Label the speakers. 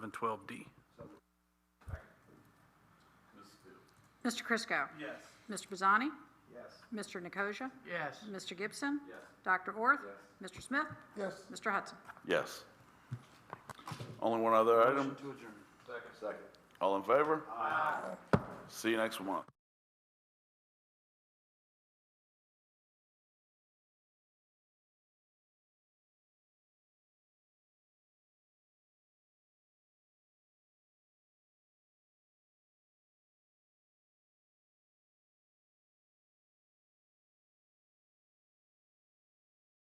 Speaker 1: and twelve D.
Speaker 2: Mr. Crisco?
Speaker 1: Yes.
Speaker 2: Mr. Bazzani?
Speaker 1: Yes.
Speaker 2: Mr. Nicosia?
Speaker 1: Yes.
Speaker 2: Mr. Gibson?
Speaker 1: Yes.
Speaker 2: Dr. Orth? Mr. Smith?
Speaker 3: Yes.
Speaker 2: Mr. Hudson?
Speaker 4: Yes. Only one other item.
Speaker 1: to adjourn.
Speaker 4: All in favor? Aye. See you next month.